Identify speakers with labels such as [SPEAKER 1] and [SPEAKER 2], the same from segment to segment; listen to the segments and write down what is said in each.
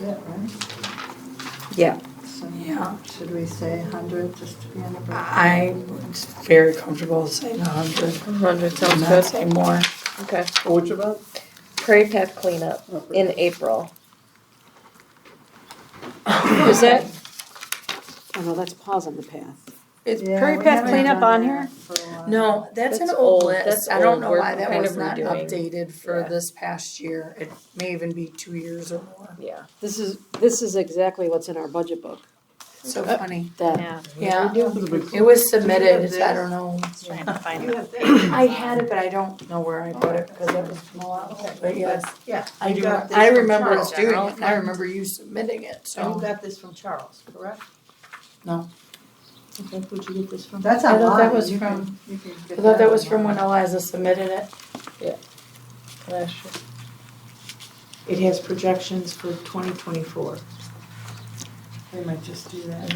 [SPEAKER 1] it, right?
[SPEAKER 2] Yeah.
[SPEAKER 1] So
[SPEAKER 3] Yeah.
[SPEAKER 1] Should we say hundred just to be on the bright?
[SPEAKER 4] Ah.
[SPEAKER 3] I was very comfortable saying a hundred.
[SPEAKER 2] Hundred
[SPEAKER 3] I'm
[SPEAKER 2] sounds
[SPEAKER 3] not
[SPEAKER 2] good.
[SPEAKER 3] saying more.
[SPEAKER 2] Okay.
[SPEAKER 1] Oh,
[SPEAKER 5] What's about?
[SPEAKER 2] Prairie Path cleanup
[SPEAKER 5] Oh, great.
[SPEAKER 2] in April. Is that,
[SPEAKER 6] Oh, no, that's paws on the path.
[SPEAKER 4] Is
[SPEAKER 1] Yeah,
[SPEAKER 4] Prairie
[SPEAKER 1] we
[SPEAKER 4] Path
[SPEAKER 1] haven't
[SPEAKER 4] cleanup
[SPEAKER 1] done
[SPEAKER 4] on here?
[SPEAKER 1] that for a while.
[SPEAKER 4] No, that's an
[SPEAKER 2] That's
[SPEAKER 4] old
[SPEAKER 2] old. That's
[SPEAKER 4] list. I don't
[SPEAKER 2] old.
[SPEAKER 4] know
[SPEAKER 2] We're
[SPEAKER 4] why that
[SPEAKER 2] kind
[SPEAKER 4] was
[SPEAKER 2] of
[SPEAKER 4] not
[SPEAKER 2] redoing.
[SPEAKER 4] updated for
[SPEAKER 2] Yeah.
[SPEAKER 4] this past year. It may even be two years or more.
[SPEAKER 2] yeah.
[SPEAKER 6] This is, this is exactly what's in our budget book,
[SPEAKER 4] So funny.
[SPEAKER 6] that,
[SPEAKER 4] Uh, Yeah,
[SPEAKER 5] It
[SPEAKER 4] it was submitted. I don't know.
[SPEAKER 7] Trying to find
[SPEAKER 1] You
[SPEAKER 7] it.
[SPEAKER 1] have that.
[SPEAKER 4] I had it, but I don't know where I put it because it was from a while ago. But yes,
[SPEAKER 1] Yeah.
[SPEAKER 4] I
[SPEAKER 1] you
[SPEAKER 4] do.
[SPEAKER 1] got this
[SPEAKER 4] I
[SPEAKER 1] from
[SPEAKER 4] remember
[SPEAKER 1] Charles.
[SPEAKER 4] us doing it. and I remember you submitting it.
[SPEAKER 1] And you
[SPEAKER 4] So
[SPEAKER 1] got this from Charles, correct?
[SPEAKER 4] No.
[SPEAKER 1] Okay, who'd you get this from? That's
[SPEAKER 4] I thought that
[SPEAKER 1] online.
[SPEAKER 4] was
[SPEAKER 1] You can-
[SPEAKER 4] from-
[SPEAKER 1] you can
[SPEAKER 4] I
[SPEAKER 1] get
[SPEAKER 4] thought that was from when
[SPEAKER 1] online.
[SPEAKER 4] Eliza submitted it.
[SPEAKER 2] Last year.
[SPEAKER 1] It has projections for twenty twenty-four. They might just do that.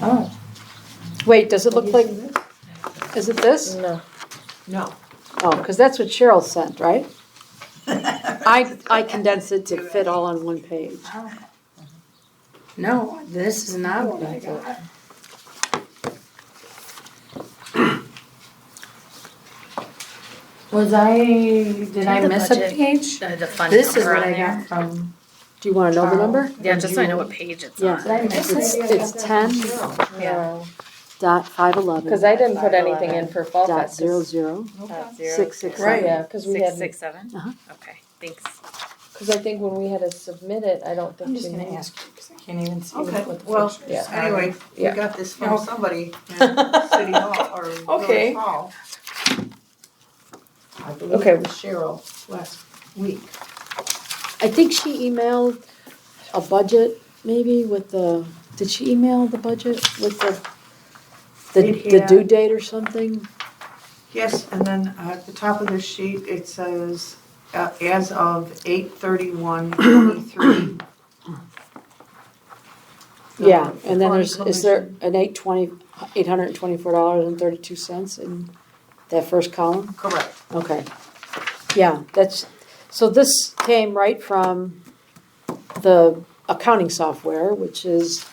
[SPEAKER 4] Oh,
[SPEAKER 6] wait, does
[SPEAKER 1] Have
[SPEAKER 6] it look
[SPEAKER 1] you
[SPEAKER 6] like,
[SPEAKER 1] seen this?
[SPEAKER 6] is it this?
[SPEAKER 2] No.
[SPEAKER 1] No.
[SPEAKER 6] Oh, because that's what Cheryl sent, right? I, I condensed it to fit all on one page.
[SPEAKER 4] no, this is not what I got. Was I, did I
[SPEAKER 7] The
[SPEAKER 4] miss a
[SPEAKER 7] budget.
[SPEAKER 4] page?
[SPEAKER 7] The the fund
[SPEAKER 4] This is
[SPEAKER 7] number
[SPEAKER 4] what
[SPEAKER 7] on
[SPEAKER 4] I
[SPEAKER 7] there.
[SPEAKER 4] got from.
[SPEAKER 6] Do you want to know the number?
[SPEAKER 7] Yeah, just so I know what page it's
[SPEAKER 6] Yeah.
[SPEAKER 7] on.
[SPEAKER 4] Did I miss
[SPEAKER 6] It's,
[SPEAKER 4] it?
[SPEAKER 6] it's ten
[SPEAKER 7] Yeah.
[SPEAKER 6] dot five eleven.
[SPEAKER 2] Cause I didn't put anything in for Fall
[SPEAKER 6] Dot
[SPEAKER 2] Fest.
[SPEAKER 6] zero zero
[SPEAKER 7] Dot zero
[SPEAKER 6] six six
[SPEAKER 4] Right.
[SPEAKER 6] seven.
[SPEAKER 2] Yeah, cause we
[SPEAKER 7] Six,
[SPEAKER 2] had,
[SPEAKER 7] six, seven?
[SPEAKER 6] Uh-huh.
[SPEAKER 7] Okay, thanks.
[SPEAKER 2] cause I think when we had to submit it, I don't think.
[SPEAKER 4] I'm just
[SPEAKER 2] we
[SPEAKER 4] gonna
[SPEAKER 2] knew.
[SPEAKER 4] ask you, cause I can't even see
[SPEAKER 1] Okay,
[SPEAKER 4] what what the
[SPEAKER 1] well,
[SPEAKER 4] pictures
[SPEAKER 2] yeah.
[SPEAKER 4] are.
[SPEAKER 1] Anyway, we
[SPEAKER 2] Yeah.
[SPEAKER 1] got this
[SPEAKER 4] No.
[SPEAKER 1] from somebody in City Hall or
[SPEAKER 4] Okay.
[SPEAKER 1] Village Hall. I believe
[SPEAKER 2] Okay.
[SPEAKER 1] it was Cheryl last week.
[SPEAKER 6] I think she emailed a budget, maybe with the, did she email the budget with the, the,
[SPEAKER 1] Did,
[SPEAKER 6] the
[SPEAKER 1] yeah.
[SPEAKER 6] due date or something?
[SPEAKER 1] Yes, and then uh, at the top of the sheet, it says, uh, as of eight thirty-one twenty-three.
[SPEAKER 6] Yeah, and then there's, is there an eight twenty, eight hundred and twenty-four dollars and thirty-two cents in that first column?
[SPEAKER 1] Correct.
[SPEAKER 6] Okay. Yeah, that's, so this came right from the accounting software, which is,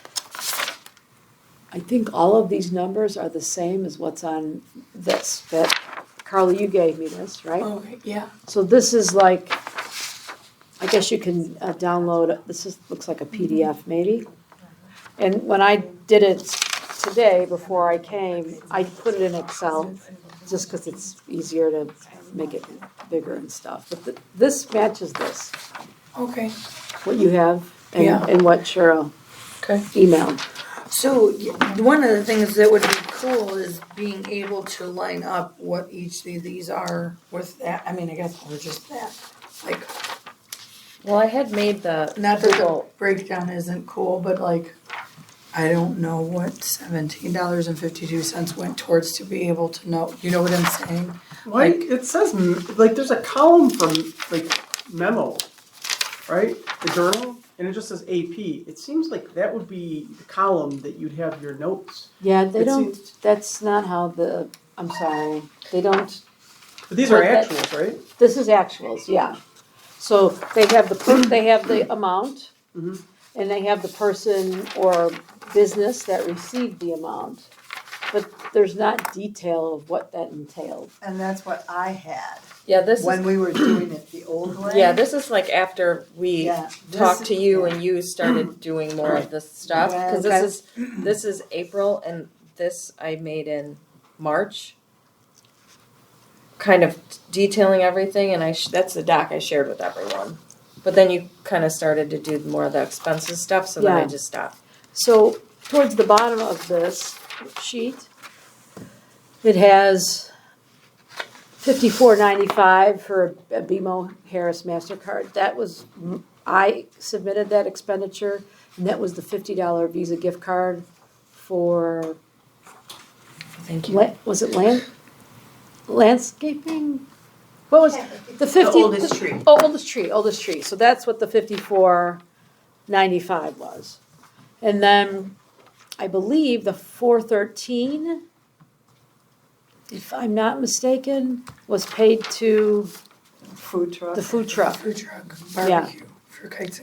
[SPEAKER 6] I think all of these numbers are the same as what's on this, that, Carly, you gave me this, right?
[SPEAKER 4] Okay, yeah,
[SPEAKER 6] So this is like, I guess you can uh, download, this is, looks like a PDF maybe. And when I did it today, before I came, I put it in Excel, just because it's easier to make it bigger and stuff. But th- this matches this,
[SPEAKER 4] okay.
[SPEAKER 6] what you have
[SPEAKER 4] Yeah.
[SPEAKER 6] and, and what Cheryl
[SPEAKER 4] Okay.
[SPEAKER 6] emailed.
[SPEAKER 4] So y- one of the things that would be cool is being able to line up what each of these are with that, I mean, I guess we're just that. Like,
[SPEAKER 2] Well, I had made the.
[SPEAKER 4] not that the
[SPEAKER 2] Google-
[SPEAKER 4] breakdown isn't cool, but like, I don't know what seventeen dollars and fifty-two cents went towards to be able to know, you know what I'm saying?
[SPEAKER 5] Why, it says, m- like, there's a column from, like, memo, right? The journal, and it just says AP. It seems like that would be the column that you'd have your notes.
[SPEAKER 6] Yeah, they
[SPEAKER 5] It
[SPEAKER 6] don't,
[SPEAKER 5] seems-
[SPEAKER 6] that's not how the, I'm sorry, they don't
[SPEAKER 5] But these are
[SPEAKER 6] Well, that-
[SPEAKER 5] actuals, right?
[SPEAKER 6] This is actuals, yeah. So they have the, per- they have the amount,
[SPEAKER 5] Mhm.
[SPEAKER 6] and they have the person or business that received the amount. But there's not detail of what that entailed.
[SPEAKER 1] And that's what I had
[SPEAKER 2] Yeah, this is,
[SPEAKER 1] when we were doing it the old way.
[SPEAKER 2] yeah, this is like after we
[SPEAKER 1] Yeah, this
[SPEAKER 2] talked to
[SPEAKER 1] is-
[SPEAKER 2] you and you started doing more of this stuff. Cause
[SPEAKER 1] Okay.
[SPEAKER 2] this is, this is April and this I made in March. Kind of detailing everything and I, sh- that's the doc I shared with everyone. But then you kind of started to do more of the expenses stuff, so then I
[SPEAKER 6] Yeah.
[SPEAKER 2] just stopped.
[SPEAKER 6] So towards the bottom of this sheet, it has fifty-four ninety-five for a BMO Harris MasterCard. That was, I submitted that expenditure, and that was the fifty dollar Visa gift card for,
[SPEAKER 2] Thank you.
[SPEAKER 6] la- was it land, landscaping? What was, the
[SPEAKER 1] The
[SPEAKER 6] fifty?
[SPEAKER 1] oldest tree.
[SPEAKER 6] Oh, oldest tree, oldest tree, so that's what the fifty-four ninety-five was. And then, I believe the four thirteen, if I'm not mistaken, was paid to
[SPEAKER 1] Food truck.
[SPEAKER 6] the food truck.
[SPEAKER 4] Food truck,
[SPEAKER 6] Yeah.
[SPEAKER 4] barbecue for kites